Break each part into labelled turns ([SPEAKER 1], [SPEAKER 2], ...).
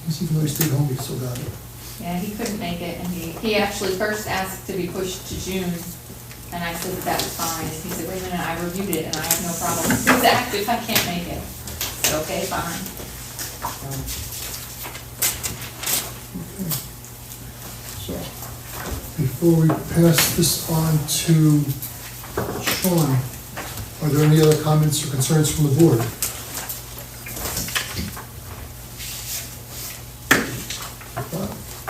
[SPEAKER 1] because even though he stayed home, he still got it.
[SPEAKER 2] Yeah, he couldn't make it, and he, he actually first asked to be pushed to June, and I said that that was fine, and he said, wait a minute, I reviewed it, and I have no problem. He's active, I can't make it. I said, okay, fine.
[SPEAKER 1] So, before we pass this on to Sean, are there any other comments or concerns from the board?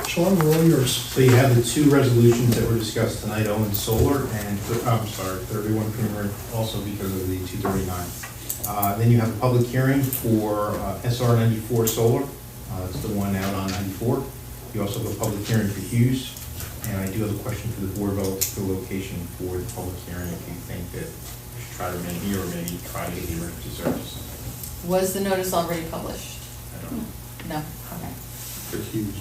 [SPEAKER 1] Sean, we're all yours.
[SPEAKER 3] So you have the two resolutions that were discussed tonight, Owen Solar and, I'm sorry, 31 Creamery, also because of the 239. Uh, Then you have a public hearing for uh, SR 94 Solar, Uh, it's the one out on 94. You also have a public hearing for Hughes, and I do have a question for the board about the location for the public hearing, if you think that we should try to remain here or maybe try to get the emergency service.
[SPEAKER 2] Was the notice already published?
[SPEAKER 3] I don't
[SPEAKER 2] No,
[SPEAKER 3] know.
[SPEAKER 2] okay.
[SPEAKER 4] For Hughes.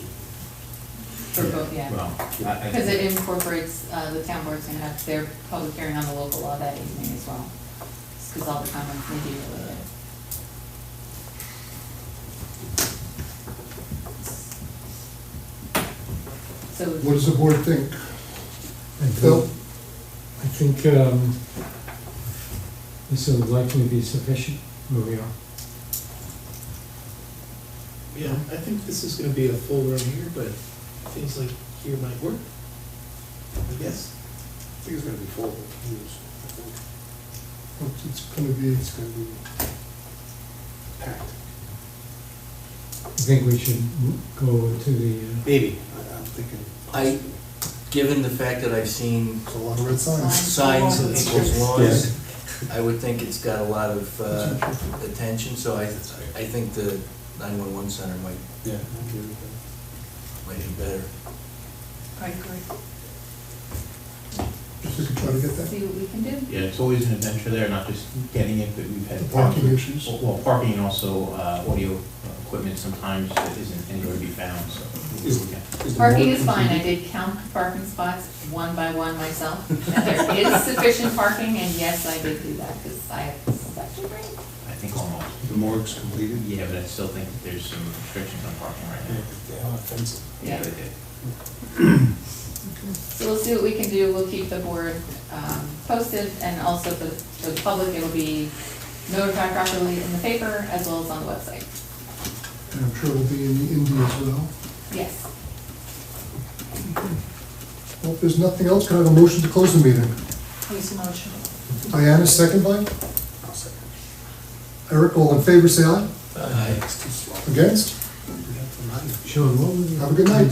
[SPEAKER 2] For both, yeah.
[SPEAKER 3] Well, I- I-
[SPEAKER 2] Because it incorporates, uh, the town board's gonna have their public hearing on the local law that evening as well. Because all the comments may be related. So.
[SPEAKER 1] What does the board think?
[SPEAKER 5] I
[SPEAKER 1] Phil?
[SPEAKER 5] think, I think, um, this will likely be sufficient where we are.
[SPEAKER 6] Yeah, I think this is gonna be a full room here, but things like here might work, I guess.
[SPEAKER 4] I think it's gonna be full of Hughes.
[SPEAKER 1] It's- It's gonna be,
[SPEAKER 4] It's gonna be packed.
[SPEAKER 5] I think we should go to the, uh,
[SPEAKER 4] Maybe. I- I'm thinking.
[SPEAKER 7] I, given the fact that I've seen
[SPEAKER 1] it's a lot of red signs.
[SPEAKER 7] signs of people's lawns,
[SPEAKER 5] Yeah.
[SPEAKER 7] I would think it's got a lot of uh, attention, so I, I think the 911 center might,
[SPEAKER 4] Yeah. I agree with that.
[SPEAKER 7] might be better.
[SPEAKER 2] I agree.
[SPEAKER 1] If we could try to get that.
[SPEAKER 2] See what we can do.
[SPEAKER 3] Yeah, it's always an adventure there, not just getting it, but we've had.
[SPEAKER 1] The parking issues.
[SPEAKER 3] Well, parking and also uh, audio equipment sometimes that isn't anywhere to be found, so. we'll do what we can.
[SPEAKER 4] the
[SPEAKER 2] Parking
[SPEAKER 4] board
[SPEAKER 2] is fine, I
[SPEAKER 4] contingent-
[SPEAKER 2] did count the parking spots one by one myself. And there is sufficient parking, and yes, I did do that, because I have such a great
[SPEAKER 3] I think almost.
[SPEAKER 4] The morgue's completed.
[SPEAKER 3] Yeah, but I still think that there's some restrictions on parking right now.
[SPEAKER 4] They are offensive.
[SPEAKER 2] Yeah.
[SPEAKER 3] they did.
[SPEAKER 2] So we'll see what we can do, we'll keep the board um, posted, and also for the, for the public, it'll be notified properly in the paper as well as on the website.
[SPEAKER 1] And I'm sure it'll be in the Indy as well.
[SPEAKER 2] Yes.
[SPEAKER 1] Well, if there's nothing else, can I have a motion to close the meeting?
[SPEAKER 2] Please motion.
[SPEAKER 1] Diana, second by?
[SPEAKER 4] I'll second.
[SPEAKER 1] Eric, all in favor, say aye.
[SPEAKER 7] Aye.
[SPEAKER 4] It's too slow.
[SPEAKER 1] Against?
[SPEAKER 4] We have to remind them.
[SPEAKER 5] Sean, what was the?
[SPEAKER 1] Have a good night.